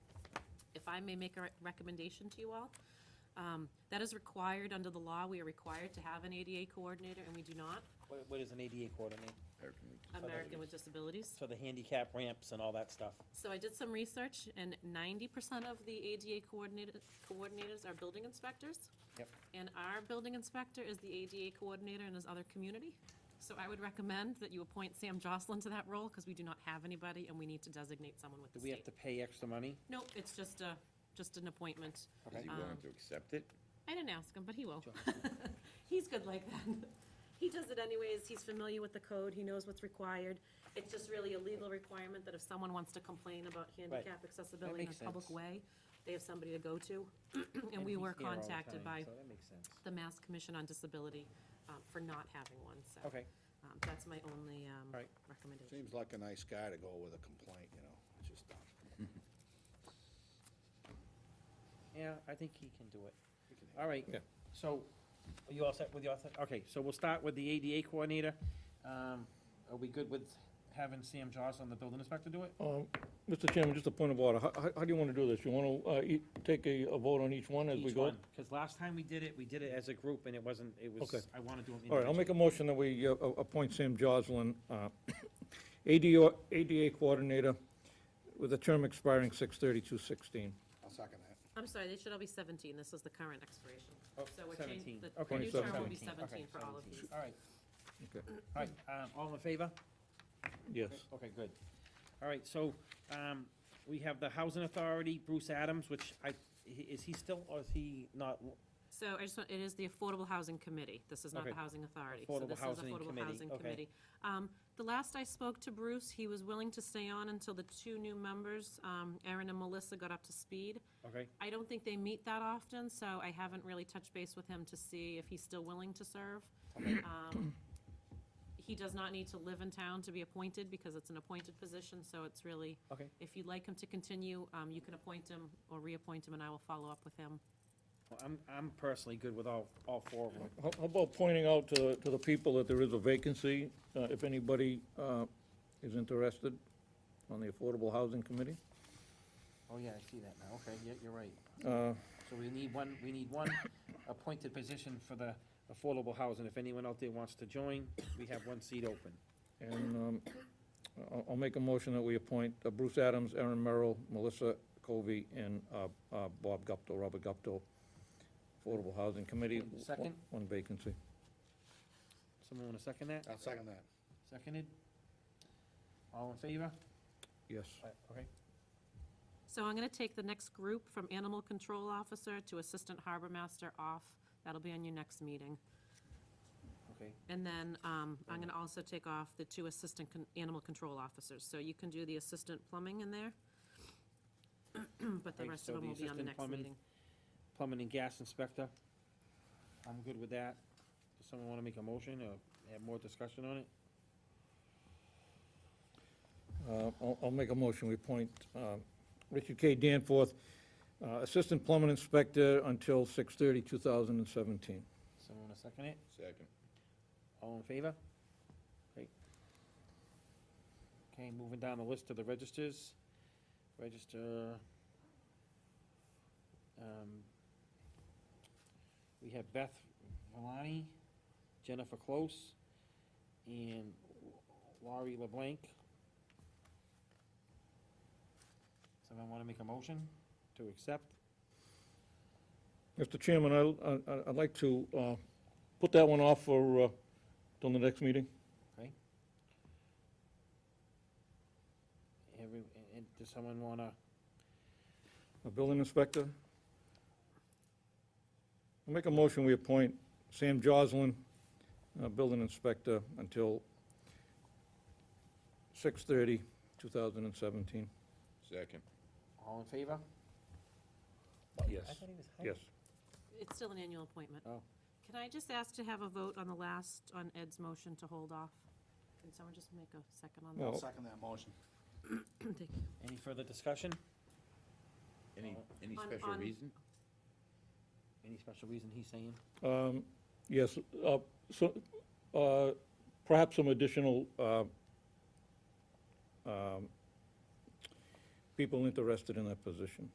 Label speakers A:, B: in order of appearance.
A: I may make a re- recommendation to you all. Um, That is required under the law. We are required to have an ADA coordinator, and we do not,
B: What, what is an ADA coordinator?
A: American with Disabilities.
B: So the handicap ramps and all that stuff.
A: So I did some research, and ninety percent of the ADA coordinator, coordinators are building inspectors.
B: Yep.
A: And our building inspector is the ADA coordinator in his other community. So I would recommend that you appoint Sam Jocelyn to that role, because we do not have anybody, and we need to designate someone with the
B: Do we have
A: state.
B: to pay extra money?
A: No, it's just a, just an appointment.
B: Okay.
C: Is he
D: Um,
C: willing to accept it?
A: I didn't ask him, but he will.
B: Sure.
A: He's good like that. He does it anyways, he's familiar with the code, he knows what's required. It's just really a legal requirement that if someone wants to complain about handicap accessibility in
B: makes
A: a public
B: sense.
A: way, they have somebody to go to. And we
B: he's
A: were
B: here all the
A: contacted
B: time,
A: by
B: So that makes sense.
A: the Mass Commission on Disability um, for not having one, so.
B: Okay,
A: um, That's my only um,
B: All right.
A: recommendation.
D: Seems like a nice guy to go with a complaint, you know, it's just, uh,
B: yeah, I think he can do it.
D: we can-
B: All right,
C: Yeah.
B: so, are you all set with your, okay, so we'll start with the ADA coordinator. Um, Are we good with having Sam Jocelyn, the building inspector, do it?
E: Um, Mr. Chairman, just a point of order. How, how- how do you want to do this? You want to take a a vote on each one as we go?
B: Because last time we did it, we did it as a group, and it wasn't, it was,
E: Okay.
B: I want to do them
E: All right, I'll
B: individually.
E: make a motion that we uh, a- appoint Sam Joslin, uh, ADO ADA Coordinator, with a term expiring 6/32/16.
D: I'll second that.
A: I'm sorry, they should all be 17, this is the current expiration.
B: Oh,
A: So we're changing,
B: 17.
A: the
B: Okay.
A: new term will be 17
E: 17.
A: for all of these.
B: All right,
E: Okay.
B: all right, um, all in favor?
E: Yes.
B: Okay, good. All right, so, um, we have the Housing Authority, Bruce Adams, which I, he- is he still, or is he not?
A: So I just want, it is the Affordable Housing Committee. This is not the
B: Okay.
A: Housing Authority. So
B: Affordable
A: this is
B: Housing
A: Affordable
B: Committee,
A: Housing
B: okay.
A: Committee. Um, The last I spoke to Bruce, he was willing to stay on until the two new members, um, Aaron and Melissa, got up to speed.
B: Okay,
A: I don't think they meet that often, so I haven't really touched base with him to see if he's still willing to serve. Um, He does not need to live in town to be appointed because it's an appointed position, so it's really,
B: okay,
A: if you'd like him to continue, um, you can appoint him or reappoint him, and I will follow up with him.
B: Well, I'm, I'm personally good with all, all four of them.
E: How how about pointing out to, to the people that there is a vacancy, uh, if anybody uh, is interested on the Affordable Housing Committee?
B: Oh, yeah, I see that now, okay, yeah, you're right.
E: Uh,
B: So we need one, we need one appointed position for the affordable housing. If anyone out there wants to join, we have one seat open.
E: And um, I'll- I'll make a motion that we appoint uh, Bruce Adams, Aaron Merrill, Melissa Covey, and uh, uh, Bob Gupto, Robert Gupto, Affordable Housing Committee.
B: And second?
E: One vacancy.
B: Someone want to second that?
D: I'll second that.
B: Seconded? All in favor?
E: Yes.
B: Okay.
A: So I'm going to take the next group from Animal Control Officer to Assistant Harbor Master off. That'll be on your next meeting.
B: Okay.
A: And then um, I'm going to also take off the two Assistant Con- Animal Control Officers. So you can do the Assistant Plumbing in there. But the
B: Okay,
A: rest
B: so
A: of them will
B: the
A: be on the
B: assistant
A: next
B: plumbing-
A: meeting.
B: Plumbing and gas inspector. I'm good with that. Does someone want to make a motion or have more discussion on it?
E: Uh, I'll I'll make a motion, we appoint uh, Richard K. Danforth, uh, Assistant Plumbing Inspector until 6/30/2017.
B: Someone want to second it?
C: Second.
B: All in favor? Great. Okay, moving down the list to the registers. Register. um, We have Beth Valani, Jennifer Close, and Laurie LeBlanc. Someone want to make a motion to accept?
E: Mr. Chairman, I'll- I- I- I'd like to uh, put that one off for, uh, till the next meeting.
B: Every, and- and does someone want to,
E: A building inspector? I'll make a motion, we appoint Sam Joslin, uh, building inspector, until 6:30, 2017.
C: Second.
B: all in favor?
E: Yes.
B: I thought he was hired.
E: Yes.
A: It's still an annual appointment.
B: Oh.
A: Can I just ask to have a vote on the last, on Ed's motion to hold off? Can someone just make a second on
E: Well-
A: that?
D: I'll second that motion.
A: Thank you.
B: Any further discussion?
C: Any, any
A: On-
C: special
A: on-
C: reason?
B: Any special reason he's saying?
E: Um, Yes, uh, so, uh, perhaps some additional uh, um, people interested in that position.